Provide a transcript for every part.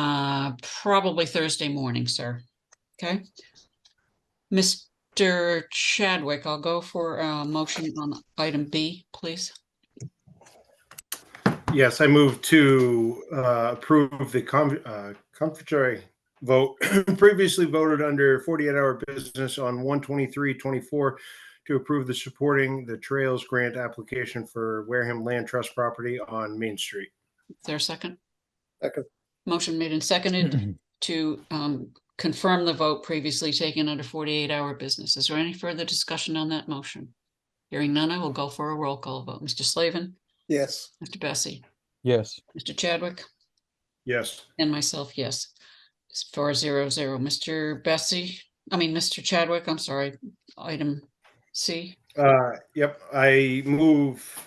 Uh, probably Thursday morning, sir. Okay. Mr. Chadwick, I'll go for a motion on item B, please. Yes, I move to uh, approve the com- uh, confirmatory vote previously voted under 48-hour business on 123-24 to approve the supporting the Trails Grant application for Wareham Land Trust property on Main Street. Is there a second? Second. Motion made and seconded to um, confirm the vote previously taken under 48-hour business. Is there any further discussion on that motion? Hearing none, I will go for a roll call vote. Mr. Slavin, Yes, Mr. Bessie, Yes, Mr. Chadwick, Yes, and myself, yes. It's Four zero zero. Mr. Bessie, I mean, Mr. Chadwick, I'm sorry, item C. uh, yep, I move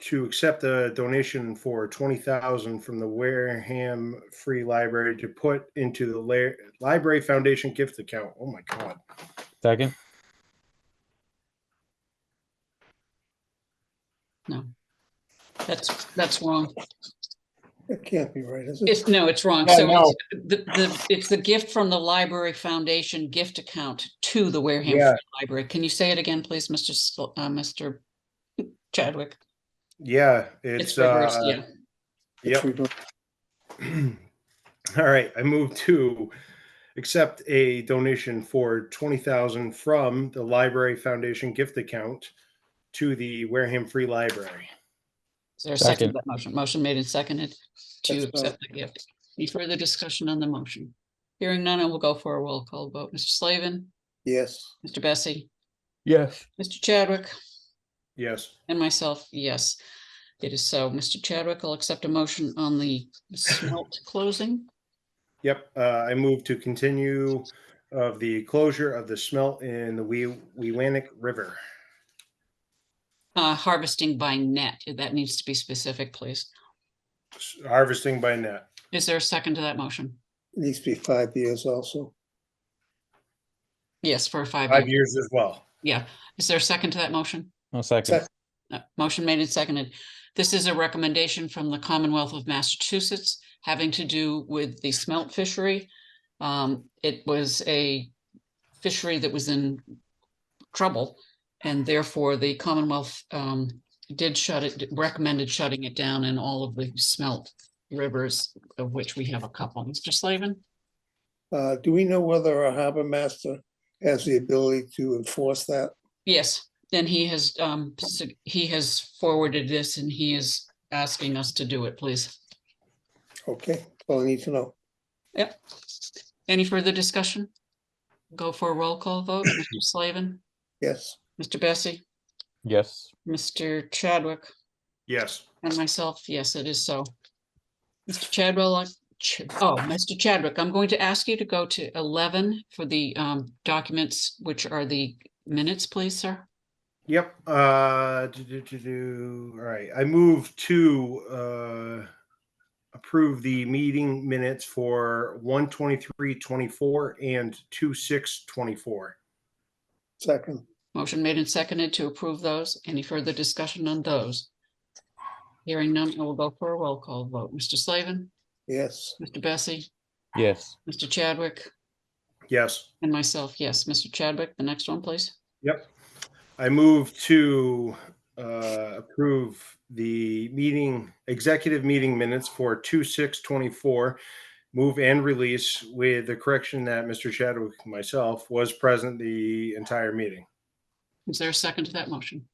to accept the donation for 20,000 from the Wareham Free Library to put into the La- Library Foundation gift account. Oh my God. second, No. That's, that's wrong. it can't be right, is it? It's, no, it's wrong. Yeah, So no. it's the, the, it's the gift from the Library Foundation gift account to the Wareham Yeah. Free Library. Can you say it again, please, Mr. Sl- uh, Mr. Chadwick? Yeah, It's it's, reversed, uh, yeah. Yep. We don't- All right, I move to accept a donation for twenty thousand from the Library Foundation gift account to the Wareham Free Library. Is there a second to Second. that motion? Motion made and seconded to That's fine. accept the gift. Any further discussion on the motion? Hearing none, I will go for a roll call vote. Mr. Slavin, Yes, Mr. Bessie, yes, Mr. Chadwick, Yes, and myself, yes. It is so. Mr. Chadwick, I'll accept a motion on the smelt closing. yep, uh, I move to continue of the closure of the smelt in the Wee- Weewanick River. Uh, harvesting by net, that needs to be specific, please. S- Harvesting by net. Is there a second to that motion? it needs to be five years also. Yes, for a five, Five year- years as well. yeah. Is there a second to that motion? no second, Sec- Uh, Motion made and seconded. This is a recommendation from the Commonwealth of Massachusetts having to do with the smelt fishery. Um, it was a fishery that was in trouble and therefore the Commonwealth, um, did shut it, recommended shutting it down in all of the smelt rivers of which we have a couple. Mr. Slavin? Uh, do we know whether our harbor master has the ability to enforce that? Yes, then he has, um, s- he has forwarded this and he is asking us to do it, please. Okay, all I need to know. Yep. Any further discussion? Go for a roll call vote. Mr. Slavin, Yes, Mr. Bessie, yes, Mr. Chadwick, Yes, and myself. Yes, it is so. Mr. Chadwell, I- Ch- oh, Mr. Chadwick, I'm going to ask you to go to eleven for the um documents, which are the minutes, please, sir. yep, uh, do, do, do, do. all right, I move to, uh, approve the meeting minutes for one twenty-three twenty-four and two six twenty-four. second, Motion made and seconded to approve those. Any further discussion on those? Hearing none, I will go for a roll call vote. Mr. Slavin, yes, Mr. Bessie, yes, Mr. Chadwick, Yes, and myself, yes. Mr. Chadwick, the next one, please. I move to, uh, approve the meeting, executive meeting minutes for two six twenty-four. Move and release with the correction that Mr. Chadwick, myself, was present the entire meeting. Is there a second to that motion?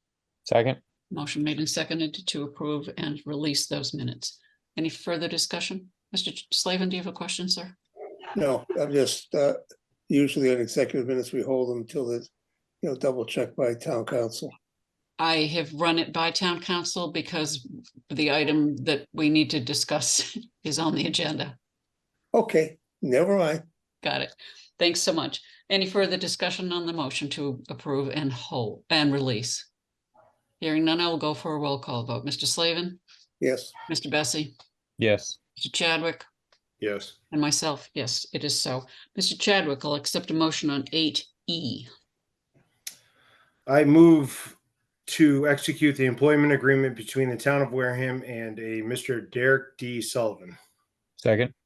second, Motion made and seconded to approve and release those minutes. Any further discussion? Mr. Ch- Slavin, do you have a question, sir? no, I'm just, uh, usually on executive minutes, we hold them until it's, you know, double checked by town council. I have run it by town council because the item that we need to discuss is on the agenda. Okay, never mind, Got it. Thanks so much. Any further discussion on the motion to approve and hold and release? Hearing none, I will go for a roll call vote. Mr. Slavin, yes, Mr. Bessie, yes, Mr. Chadwick, Yes. and myself. Yes, it is so. Mr. Chadwick, I'll accept a motion on eight E. I move to execute the employment agreement between the town of Wareham and a Mr. Derek D. Sullivan. second,